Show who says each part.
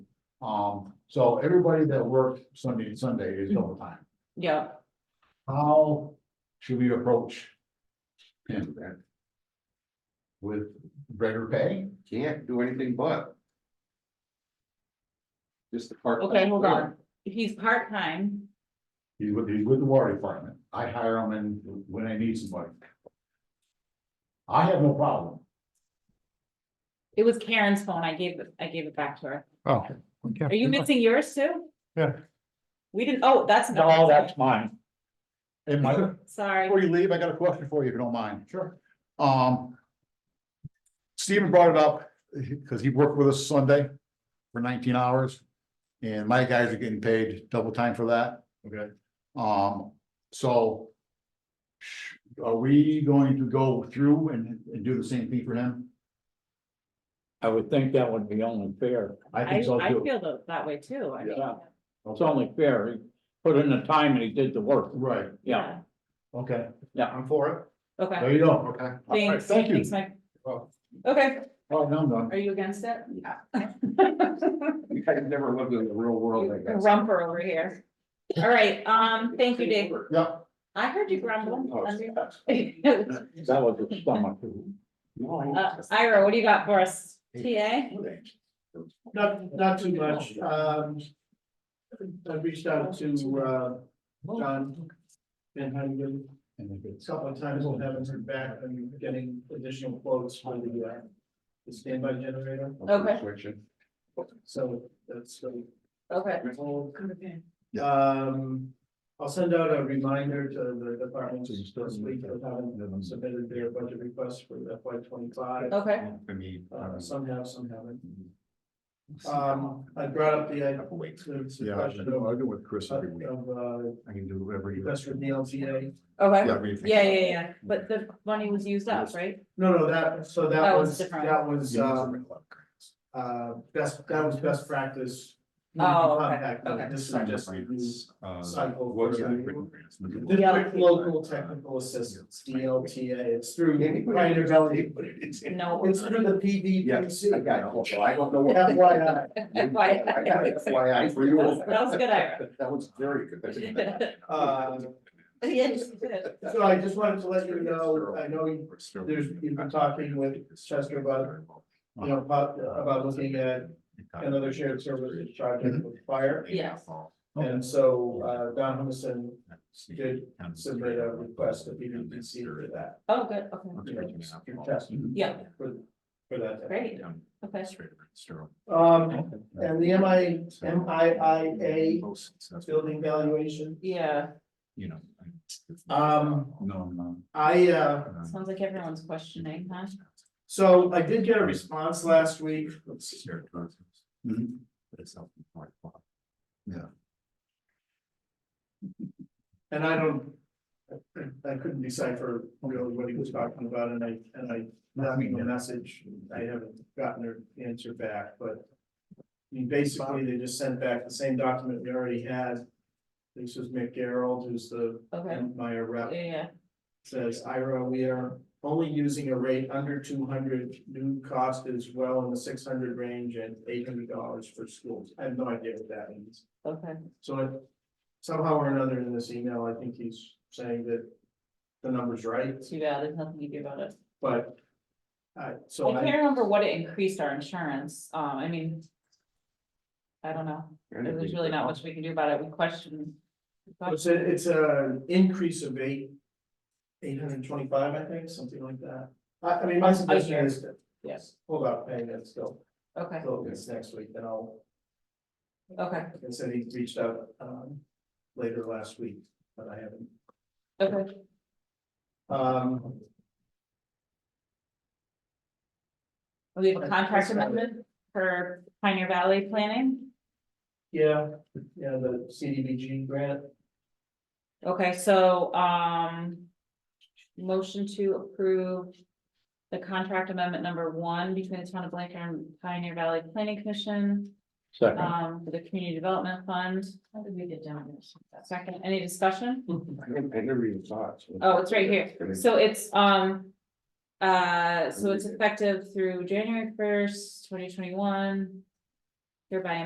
Speaker 1: Um, so everybody that worked Sunday and Sunday is overtime.
Speaker 2: Yeah,
Speaker 1: How should we approach? him then? With greater pay?
Speaker 3: Can't do anything but. Just the part.
Speaker 2: okay, hold on. He's part-time,
Speaker 1: He's with, he's with the water department. I hire him in when I need somebody. I have no problem.
Speaker 2: it was Karen's phone, I gave, it- I gave it back to her.
Speaker 4: Oh.
Speaker 2: Are you missing yours too?
Speaker 4: Yeah.
Speaker 2: We didn't, oh, that's.
Speaker 1: No, that's mine. And my,
Speaker 2: Sorry,
Speaker 1: before you leave, I got a question for you, if you don't mind. Sure. Um. Steven brought it up, because he worked with us Sunday for nineteen hours. And my guys are getting paid double time for that.
Speaker 4: Okay.
Speaker 1: Um, so. sh- Are we going to go through and, and do the same thing for him?
Speaker 4: I would think that would be only fair.
Speaker 1: I
Speaker 2: I, I
Speaker 1: think so too.
Speaker 2: feel tho- that way too, I mean.
Speaker 4: Yeah. It's only fair. He put in the time and he did the work.
Speaker 1: Right,
Speaker 4: Yeah.
Speaker 1: okay.
Speaker 4: Yeah,
Speaker 1: I'm for it.
Speaker 2: Okay,
Speaker 1: There you go. Okay.
Speaker 2: thanks,
Speaker 1: Thank you.
Speaker 2: thanks, Mike.
Speaker 1: Well-
Speaker 2: Okay,
Speaker 1: Oh, now I'm done.
Speaker 2: are you against it? Yeah.
Speaker 3: You guys never lived in the real world, I guess.
Speaker 2: Rumper over here. All right, um, thank you, Dave.
Speaker 1: Yeah.
Speaker 2: I heard you grumble.
Speaker 3: Oh,
Speaker 2: Uh,
Speaker 4: That was his stomach.
Speaker 2: Ira, what do you got for us? TA?
Speaker 5: Not, not too much, um. I reached out to, uh, John Van Huntington a couple of times, and haven't heard back, I'm getting additional quotes for the, uh. The standby generator,
Speaker 2: Okay.
Speaker 5: so that's, so
Speaker 2: Okay.
Speaker 5: Um, I'll send out a reminder to the departments this week, that haven't submitted their budget requests for FY twenty-five.
Speaker 2: Okay,
Speaker 3: For me.
Speaker 1: Oh.
Speaker 5: Uh, some have, some haven't,
Speaker 3: Um,
Speaker 5: um, I brought up the, uh,
Speaker 3: Couple weeks.
Speaker 5: to, to
Speaker 1: Yeah, I
Speaker 5: question
Speaker 1: do I
Speaker 5: of,
Speaker 1: do with Chris every week.
Speaker 5: of, uh,
Speaker 1: I can do every.
Speaker 5: request from the LTA.
Speaker 2: okay.
Speaker 1: Yeah, everything.
Speaker 2: Yeah, yeah, yeah, but the money was used up, right?
Speaker 5: No, no, that, so
Speaker 2: That
Speaker 5: that
Speaker 2: was
Speaker 5: was,
Speaker 2: different.
Speaker 5: that was, um,
Speaker 1: Yeah.
Speaker 5: uh, best, that was best practice.
Speaker 2: Oh, okay,
Speaker 5: Contact,
Speaker 2: okay.
Speaker 5: This is just a new
Speaker 3: uh,
Speaker 5: cycle
Speaker 1: what's
Speaker 5: for-
Speaker 1: that?
Speaker 5: District Local Technical Assistance, DLTA, it's through. Pioneer Valley.
Speaker 2: No.
Speaker 5: It's through the PVPC.
Speaker 3: Yes, I got it. Well, I don't know. what-
Speaker 5: FYI,
Speaker 2: FYI.
Speaker 3: I got it, FYI for you.
Speaker 2: That was good, Ira.
Speaker 3: That was very good.
Speaker 5: uh,
Speaker 2: Yes, you did.
Speaker 5: so I just wanted to let you know, I know you, there's, you've been talking with Chester about, you
Speaker 3: Uh-huh.
Speaker 5: know, about, about looking at another shared services
Speaker 1: Mm-hmm.
Speaker 5: project with fire.
Speaker 2: Yes.
Speaker 5: And so, uh, Don Humison
Speaker 1: Oh.
Speaker 5: did submit a request to be reconsidered for that.
Speaker 2: Oh, good, okay,
Speaker 5: you know, your testimony
Speaker 2: Yeah.
Speaker 5: For for that.
Speaker 2: great, okay.
Speaker 5: Um, and the M I, M I I A building valuation,
Speaker 2: Yeah,
Speaker 1: You know.
Speaker 5: um,
Speaker 1: No, no.
Speaker 5: I, uh,
Speaker 2: sounds like everyone's questioning, huh?
Speaker 5: so I did get a response last week. Mm-hmm. And I don't, I- I couldn't decipher really what he was talking about and I, and I, left him a message, I haven't gotten her answer back, but. I mean, basically, they just sent back the same document we already had. This was McGarrald, who's the
Speaker 2: Okay,
Speaker 5: Empire
Speaker 2: yeah,
Speaker 5: rep,
Speaker 2: yeah,
Speaker 5: says, Ira, we are only using a rate under two hundred. New cost is well in the six hundred range and eight hundred dollars for schools. I have no idea what that means.
Speaker 2: okay,
Speaker 5: So I- somehow or another in this email, I think he's saying that the number's right,
Speaker 2: too bad, there's nothing you do about it.
Speaker 5: but. I, so
Speaker 2: I can't
Speaker 5: I,
Speaker 2: remember what it increased our insurance, um, I mean. I don't know, there's really not much we can do about it, we question.
Speaker 5: it's a, it's an increase of eight, eight hundred and twenty-five, I think, something like that. I, I mean, my suggestion is that,
Speaker 2: Yes,
Speaker 5: hold up, paying that still,
Speaker 2: okay,
Speaker 5: till this next week, then I'll,
Speaker 2: okay,
Speaker 5: like I said, he reached out, um, later last week, but I haven't.
Speaker 2: okay,
Speaker 5: Um,
Speaker 2: we have a contract amendment for Pioneer Valley Planning.
Speaker 5: yeah, yeah, the CDBG grant,
Speaker 2: Okay, so, um. Motion to approve. The contract amendment number one between the town of Blanker and Pioneer Valley Planning Commission,
Speaker 4: Second,
Speaker 2: um, for the Community Development Fund. How did we get down this? Second, any discussion?
Speaker 3: I didn't- I never even saw it. so-
Speaker 2: Oh, it's right here. So it's, um. Uh, so it's effective through January first, twenty twenty-one. Hereby